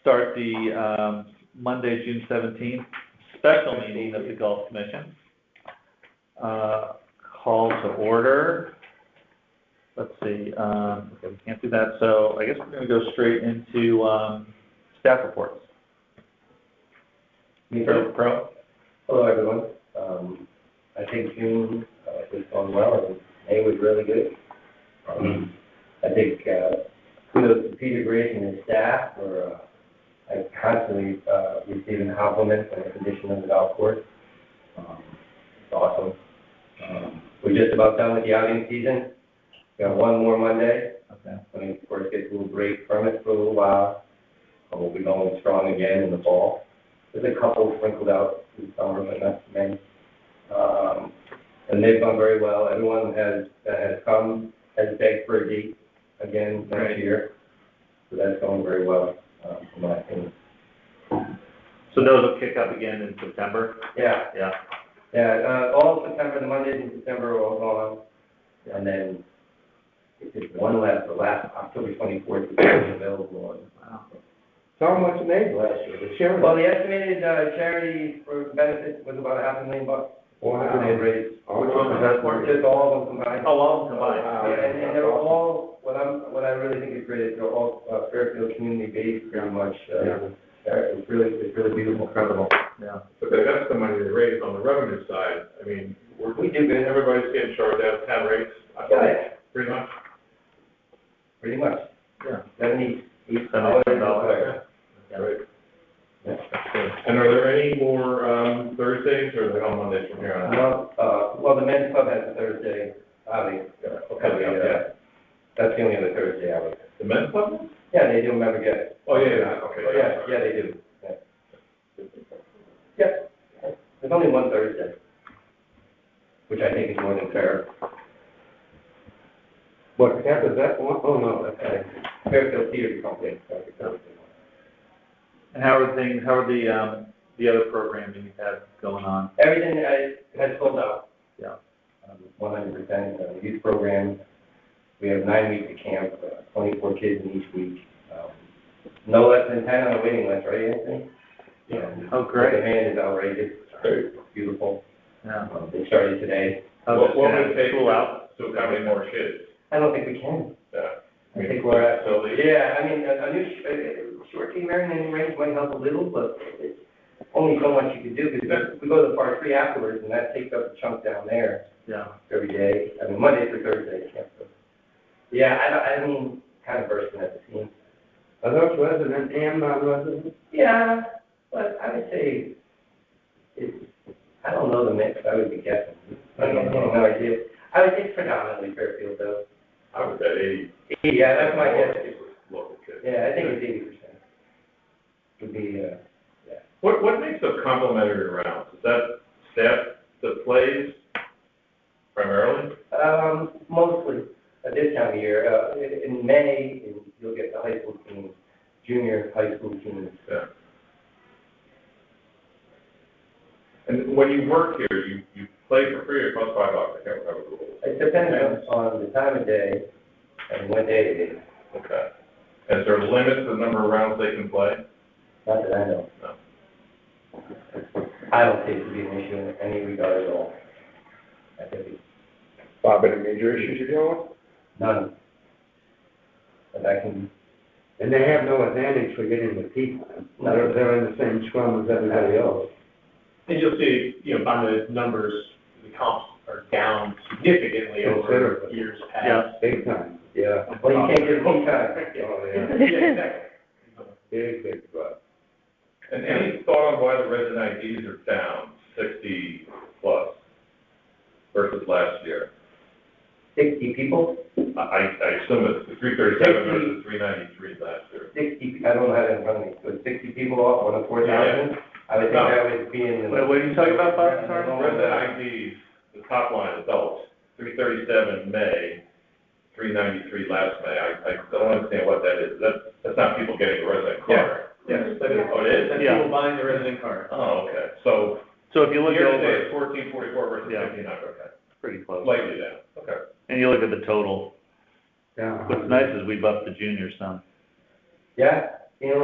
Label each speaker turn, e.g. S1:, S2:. S1: start the um, Monday, June seventeenth, special meeting of the Gulf Commission. Uh, Call to order. Let's see, um, okay, we can't do that, so I guess we're gonna go straight into um, staff reports. Pro, pro,
S2: Hello, everyone. Um, I think June, uh, was going well, and May was really good. Um, I think, uh, kudos to Peter Grigg and his staff for, uh, like, constantly, uh, receiving compliments on the condition of the golf course. Um, It's awesome. Um, We're just about done with the outing season. We got one more Monday,
S1: okay,
S2: when it, of course, gets a little break from it for a little while. Um, And we'll be going strong again in the fall. There's a couple sprinkled out in summer, but not too many. Um, and they've done very well. Everyone has, that has come has begged for a date again next
S1: Right.
S2: year. So that's going very well, um, in my opinion.
S1: so those will kick up again in September,
S2: Yeah,
S1: yeah,
S2: yeah, uh, all of September, the Mondays in September are all gone. And then it's one last, the last, October twenty-fourth is available on
S1: wow,
S2: How much it made last year, the charity? Well, the estimated, uh, charity for benefit was about a half a million bucks.
S3: Wow.
S2: They raised.
S3: Oh,
S1: Which one was that for?
S2: Just all of them combined.
S1: oh, all combined,
S3: wow.
S2: Yeah, and, and they're all, what I'm, what I really think is great is they're all, uh, Fairfield community-based, very much, uh, they're- it's really, it's really beautiful, incredible.
S1: yeah,
S3: But that- that's the money they raise on the revenue side. I mean, we're,
S2: We do good.
S3: everybody's getting charged out town rates, I think,
S2: Yeah,
S3: pretty much.
S2: pretty much.
S1: Yeah.
S2: Seventy-eight
S1: Seventy
S2: dollars.
S1: eight dollars. Yeah.
S3: Right.
S1: that's good.
S3: And are there any more, um, Thursdays or are they all Mondays from here on out?
S2: Well, uh, well, the men's club has a Thursday, outing.
S3: Okay, yeah, Oh, yeah.
S2: That's the only other Thursday outing.
S3: The men's club?
S2: Yeah, they do remember get it.
S3: Oh, yeah, yeah, okay.
S2: Oh, yeah, yeah, they do. Yeah. Yep, there's only one Thursday, which I think is more than fair.
S4: What, that is that one? Oh, no, that's
S2: Uh, Fairfield Theater Company. that's the company.
S1: And how are things, how are the, um, the other programming you have going on?
S2: Everything has, has sold out. Um,
S1: Yeah.
S2: One hundred percent, uh, youth program, we have nine weeks of camp, uh, twenty-four kids in each week. Um, No less than ten on the waiting list, right, Anthony? Yeah.
S1: Oh, great.
S2: The demand is outrageous,
S3: Great.
S2: beautiful.
S1: Yeah.
S2: Um, They started today.
S1: How's
S3: What-
S1: it
S3: what would
S1: gonna
S3: it take
S1: School out?
S3: So how many more kids?
S2: I don't think we can.
S3: Yeah.
S2: I think we're at,
S3: So, yeah.
S2: yeah, I mean, a, a new, sh- a- a short team Marion and range might help a little, but it's only so much you can do, because we go to the par three afterwards, and that takes up a chunk down there
S1: Yeah,
S2: every day, I mean, Monday through Thursday, yeah. so. Yeah, I, don't- I mean, kind of bursting at the seams.
S4: Are those resident and non-resident?
S2: Yeah, but I would say, it's, I don't know the mix, I would be guessing. I don't know, no idea. I would think predominantly Fairfield, though.
S3: I would bet eighty.
S2: Yeah, that's my guess.
S3: Local kids.
S2: Yeah, I think it's eighty percent. Would be, uh,
S3: What, what makes up complimentary rounds? Is that staff that plays primarily?
S2: um, mostly at this time of year, uh, in, in May, and you'll get the high school teams, junior high school teams.
S3: Yeah. And when you work here, you, you play for free or cost five bucks, I can't remember the rules.
S2: It depends on on the time of day and what day it is,
S3: Okay. And is there a limit to the number of rounds they can play?
S2: not that I know.
S3: No.
S2: I don't think it'd be an issue in any regard at all. I think it's
S4: Bob, any major issues you're dealing with?
S2: none. But I can,
S4: And they have no advantage for getting the tea time. They're, they're in the same scrum as everybody else.
S5: And you'll see, you know, by the numbers, the comps are down significantly over
S4: Considerably.
S5: years
S1: yeah,
S5: past.
S4: Big time, yeah.
S2: well, you can't get any time.
S4: Oh, yeah.
S5: Yeah,
S4: Big,
S5: exactly.
S4: big problem.
S3: And any thought on why the resident IDs are down sixty plus versus last year?
S2: Sixty people,
S3: I, I I assume it's the three thirty-seven versus three ninety-three last year.
S2: sixty, I don't know how to run it, but sixty people off on a four thousand, I would think
S3: No.
S2: that would be in the.
S1: Wait, what are you talking about, Bob? Sorry?
S2: Oh,
S3: Resident IDs, the top line adults, three thirty-seven May, three ninety-three last May. I, I don't understand what that is. That, that's not people getting a resident card.
S5: Yes, that is,
S3: Oh, it is?
S5: that's
S1: Yeah.
S5: people buying the resident card.
S3: Oh, okay. So
S1: so if you look
S3: year to
S1: over,
S3: date,
S1: it's
S3: fourteen forty-four versus
S1: Yeah.
S3: fifty-nine, okay.
S1: pretty close.
S3: Slightly down, okay.
S1: And you look at the total,
S4: Yeah.
S1: what's nice is we bumped the juniors some.
S2: Yeah, you know,